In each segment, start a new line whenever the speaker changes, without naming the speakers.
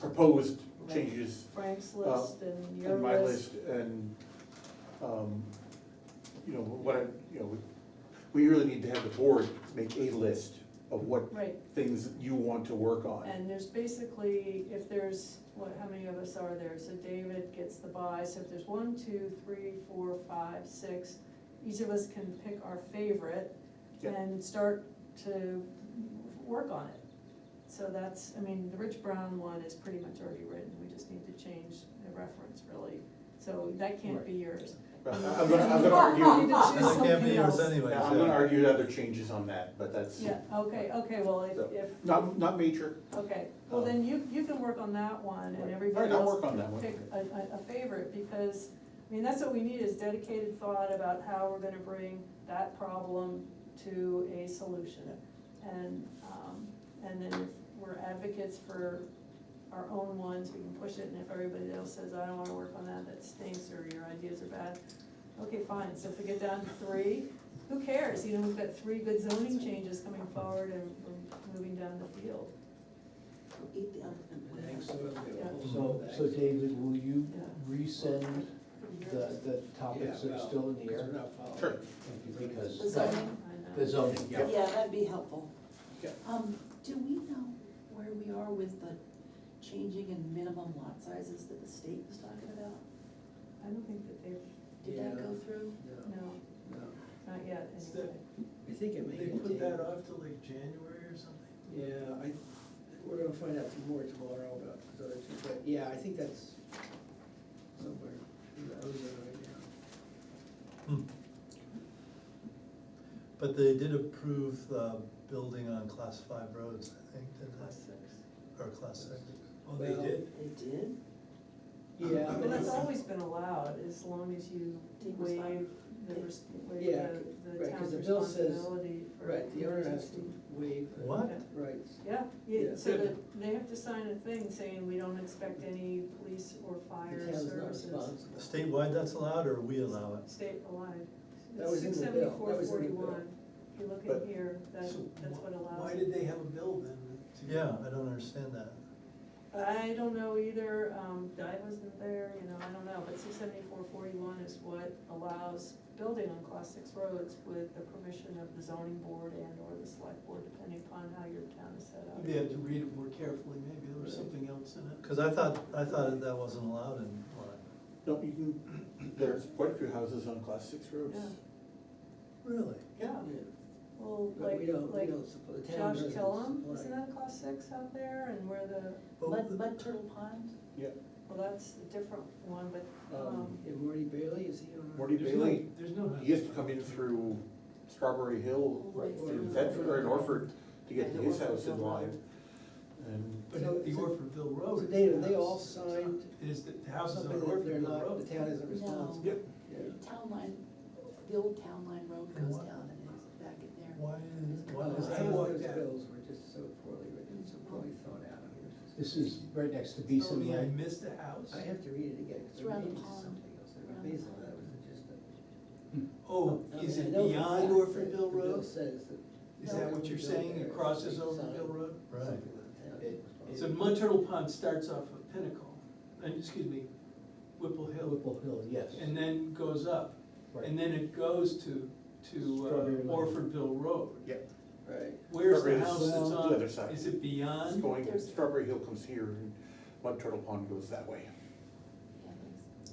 proposed changes
Frank's
Uh,
list and your
in my
list.
list and, um, you know, what, I- you know, we really need to have the board make a list of what
Right,
things you want to work on.
and there's basically, if there's, what, how many of us are there? So David gets the buy, so if there's one, two, three, four, five, six, each of us can pick our favorite
Yeah.
and start to work on it. So that's, I mean, the Rich Brown one is pretty much already written, we just need to change the reference really, so that can't be yours.
But I- I'm gonna, I'm gonna argue,
Choose
That can't be
something
yours
else.
anyway.
yeah, I'm gonna argue other changes on that, but that's
Yeah, okay, okay, well, if,
So,
if.
not, not major.
Okay, well then you, you can work on that one
Um, Right.
and everybody
All right, I'll
else
work on that one.
pick a, a, a favorite, because, I mean, that's what we need is dedicated thought about how we're gonna bring that problem to a solution. And, um, and then if we're advocates for our own ones, we can push it, and if everybody else says, I don't wanna work on that, that stinks, or your ideas are bad, okay, fine, so if we get down to three, who cares, you know, we've got three good zoning changes coming forward and we're moving down the field.
Eat the elephant. with us.
So, so David, will you
Yeah.
resend the, the topics that are still in the air?
Sure.
Because
The zoning,
the zoning,
Yeah.
yeah, that'd be helpful.
Yeah.
Um, do we know where we are with the changing in minimum lot sizes that the state was talking about?
I don't think that they've,
Did that go through?
no, not yet,
It's
anyway.
I think it may.
They
be
put that
tabled.
off till like January or something?
Yeah, I, we're gonna find out some more tomorrow about the other two, but yeah, I think that's somewhere, in the ozone right now.
Hmm. But they did approve the building on class five roads, I think, didn't
Class six.
they? Or class six.
Oh, they did?
They did?
Yeah.
But that's always been allowed, as long as you
Take
waive
responsibility.
the, res- waive
Yeah,
the, the
right, 'cause
town's
the bill says-
responsibility for
Right, the owner has to
emergency.
waive. the
What?
Rights.
Yeah, yeah,
Yeah.
so that, they have to sign a thing saying we don't expect any police or fire
The town's not
services
responsible.
Statewide that's allowed, or we allow it?
statewide.
That was in
Six
the bill, that
seventy-four
was in the bill.
forty-one, if you look
But-
in here, that,
So
that's what allows.
Why
it.
did they have a bill then? to-
Yeah, I don't understand that.
I don't know either, um, I wasn't there, you know, I don't know, but six seventy-four forty-one is what allows building on class six roads with the permission of the zoning board and or the select board, depending upon how your town is set up.
Maybe I had to read it more carefully, maybe there was something else in it.
Cause I thought, I thought that wasn't allowed in Lyme.
No, you can, there's quite a few houses on class six roads.
Yeah.
Really?
Yeah,
Yeah,
well,
But we don't, we
like, like
don't support, the town
Josh
doesn't
Killam,
supply.
isn't that a class six out there, and where the,
But
Mud, Mud Turtle Pond?
Yeah,
well, that's a different one, but, um,
Um,
Yeah, Morty Bailey, is he on? our-
Morty
There's no-
Bailey,
There's no.
he has to come in through Strawberry Hill,
All the way
through
through.
Bedford or in Orford to get to his house in line. And
But
So
the
it's a-
Orfordville Road.
So
is
they,
the
they
house.
all signed
Is, the the house is on
something that they're
Orfordville
not,
Road.
the town isn't
No.
responsible.
Yep.
Yeah.
The town line, the old town line road goes
What?
down and it's back in there.
Why is, why
Well,
is
I
that?
think
what-
those bills were just so poorly written, so poorly thought out. I mean, it's just-
this is right next to
Oh,
Beeson,
I
Line.
missed a house.
I have to read it again, because
It's around
I
the
made it
pond.
something else, I mean,
Around the
basically,
pond.
that was just a.
Oh,
I
is
mean, I
it
know for a
beyond
fact that
Orfordville
The bill
Road?
says that.
Is that what you're saying, it crosses Orfordville Road?
Right.
It-
So Mud Turtle Pond starts off of Pinnacle, and, excuse me, Whipple Hill,
Whipple Hill, yes.
and then goes up.
Right.
And then it goes to,
Strawberry
to uh,
Lane.
Orfordville Road.
Yeah.
Right.
Where's
Strawberry
the
is
house that's
the
on,
other side.
is it
it's
beyond?
going, Strawberry Hill comes here and Mud Turtle Pond goes that way.
Yeah, there's-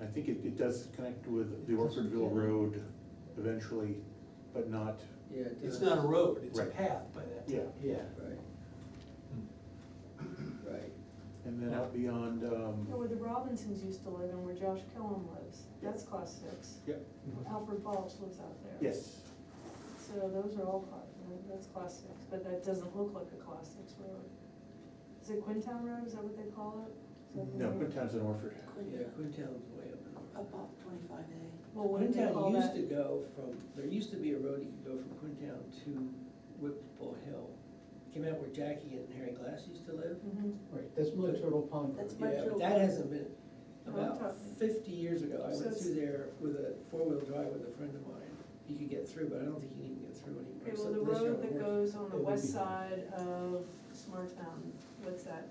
And I think it, it does connect with the Orfordville Road eventually, but not,
Yeah. it
It's
does.
not a road, Hmm. it's a
Right.
path by that.
yeah.
Yeah,
Right. Right.
And then out beyond,
you know,
um,
where the Robinsons used to live and where Josh Killam lives, that's class six.
yeah,
Alfred Balch lives out there.
yes,
So those are all, cla- that's class six, but that doesn't look like a class six road. Is it Quintown Road, is that what they call it? Is that the
no,
name?
Quintown's in Orford.
Yeah,
Quintown,
Quintown's way up in the.
up off twenty-five A.
Well, what do they call
Quintown used
that?
to go from, there used to be a road you could go from Quintown to Whipple Hill. Came out where Jackie and Harry Glass used to live.
Mhm.
right, that's Mud Turtle Pond.
That's
Road.
Mud
Yeah,
Turtle
but that
Pond.
hasn't been,
Oh, I'm
about
talking-
fifty years ago, I
So
went
it's-
through there with a four-wheel drive with a friend of mine. You could get through, but I don't think you can even get through anymore.
Okay,
so
well, the
unless you're
road that
on horse.
goes on the
It would
west
be-
side of Smart Town, what's that?